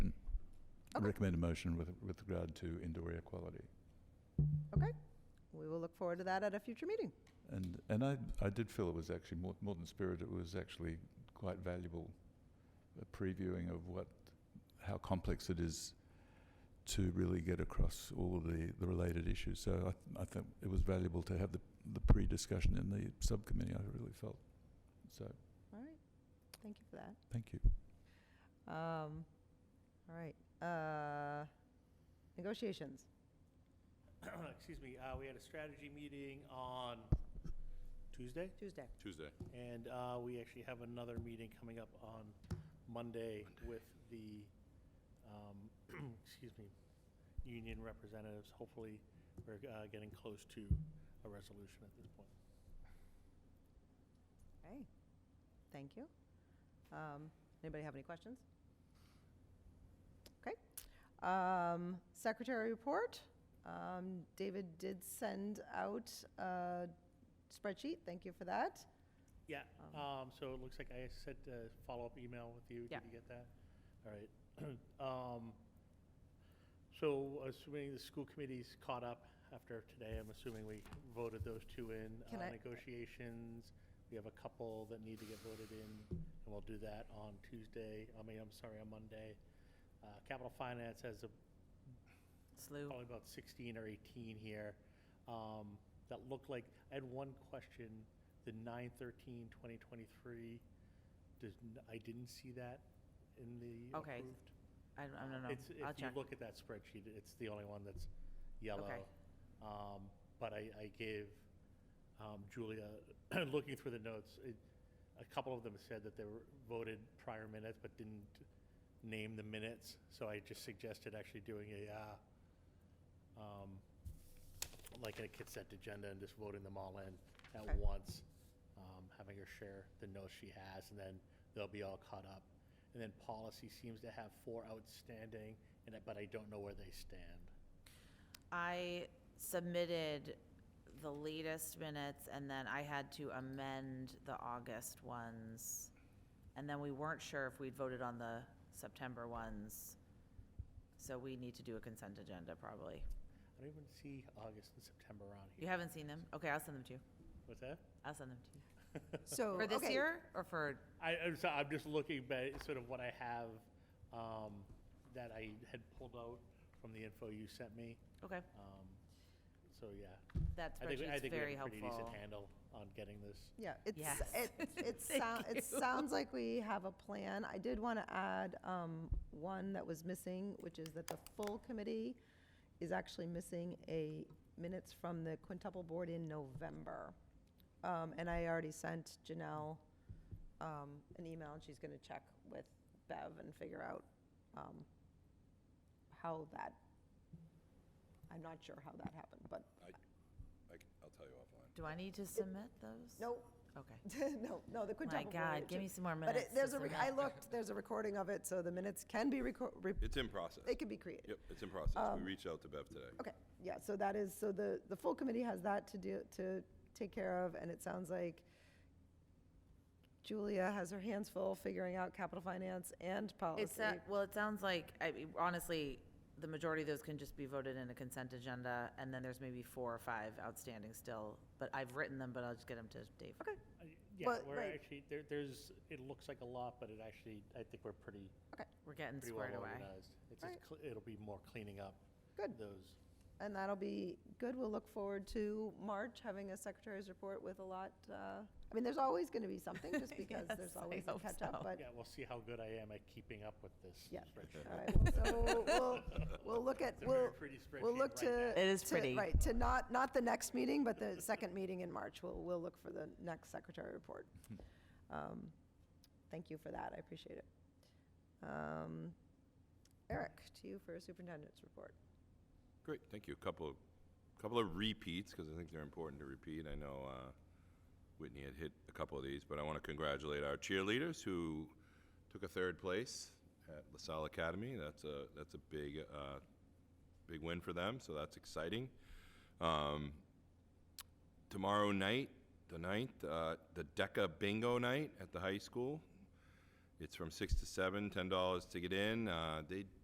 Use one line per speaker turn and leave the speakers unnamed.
recommend a motion with, with regard to indoor air quality.
We will look forward to that at a future meeting.
And, and I, I did feel it was actually more, more than spirit, it was actually quite valuable a previewing of what, how complex it is to really get across all of the, the related issues. So I, th- I think it was valuable to have the, the pre-discussion in the subcommittee, I really felt. So,
All right. Thank you for that.
thank you.
Um, All right. Uh, Negotiations.
Excuse me, uh, we had a strategy meeting on Tuesday,
Tuesday.
Tuesday.
and uh, we actually have another meeting coming up on Monday with the, um, excuse me, union representatives. Hopefully, we're uh, getting close to a resolution at this point.
Okay. Thank you. Um, Anybody have any questions? Okay. Um, Secretary report. Um, David did send out a spreadsheet. Thank you for that.
Yeah, um, so it looks like I sent a follow-up email with you.
Yeah.
Did you get that? All right. Um, So assuming the school committee's caught up after today, I'm assuming we voted those two in.
Can
Uh,
I-
Negotiations, we have a couple that need to get voted in, and we'll do that on Tuesday, I mean, I'm sorry, on Monday. Uh, Capital Finance has a
Slew.
probably about 16 or 18 here, um, that looked like, I had one question, the 9/13/2023, does, n- I didn't see that in the
Okay,
approved.
I don't, I don't
It's,
know. I'll
if you
check.
look at that spreadsheet, it's the only one that's yellow. Um, But I, I gave um, Julia, looking through the notes, it- a couple of them said that they were voted prior minutes but didn't name the minutes, so I just suggested actually doing a, uh, um, like a consent agenda and just voting them all in
Okay.
at once, um, having her share the notes she has, and then they'll be all caught up. And then policy seems to have four outstanding, and I- but I don't know where they stand.
I submitted the latest minutes, and then I had to amend the August ones. And then we weren't sure if we'd voted on the September ones. So we need to do a consent agenda, probably.
I don't even see August and September on
You
here.
haven't seen them? Okay, I'll send them to you.
What's that?
I'll send them to you.
So.
For this
Oh, okay.
year, or for,
I, I'm, so, I'm just looking at sort of what I have um, that I had pulled out from the info you sent me.
okay,
Um, so yeah,
that
I think, I
spreadsheet's
think we
very
have a pretty decent
helpful.
handle on getting this.
Yeah, it's,
Yes.
it, it
Thank
sounds,
you.
it sounds like we have a plan. I did want to add, um, one that was missing, which is that the full committee is actually missing a minutes from the quintuple board in November. Um, and I already sent Janelle, um, an email and she's going to check with Bev and figure out, um, how that, I'm not sure how that happened, but,
I, c- I'll tell you offline.
Do I need to submit those?
no,
Okay.
no, no, the
My
quintuple board.
God,
it
give
ju-
me some more minutes.
But it,
to
there's a, rec- I
submit.
looked, there's a recording of it, so the minutes can be reco- re-
It's in process.
they can be created.
Yep, it's in process. We reached out to Bev today.
Okay, yeah, so that is, so the, the full committee has that to do, to take care of, and it sounds like Julia has her hands full figuring out capital finance and policy.
It's, uh, well, it sounds like, I mean, honestly, the majority of those can just be voted in a consent agenda, and then there's maybe four or five outstanding still, but I've written them, but I'll just get them to Dave.
Okay,
I- Uh, Yeah,
But,
we're
right.
actually, there, there's, it looks like a lot, but it actually, I think we're pretty,
We're getting
pretty well
squared away.
organized. It's just,
Right.
cle- it'll be more cleaning up
Good.
those.
and that'll be good. We'll look forward to March, having a secretary's report with a lot, uh, I mean, there's always going to be something, just because
Yes,
there's
I
always a
hope
catch-up,
so.
but
Yeah, we'll see how good I am at keeping up with this.
Yeah.
spreadsheet.
All right, well, so we'll, we'll look at,
It's a very
we'll,
pretty
we'll
spreadsheet
look
right
to.
now.
It is
to-
pretty.
Right, to not, not the next meeting, but the second meeting in March. We'll, we'll look for the next secretary report. Um, Thank you for that, I appreciate it. Um, Eric, to you for superintendent's report.
Great, thank you. Couple, of- couple of repeats, because I think they're important to repeat. I know uh, Whitney had hit a couple of these, but I want to congratulate our cheerleaders who took a third place at LaSalle Academy. That's a, that's a big, uh, big win for them, so that's exciting. Um, Tomorrow night, the 9th, uh, the DECA Bingo Night at the high school. It's from 6 to 7, $10 to get in. Uh, They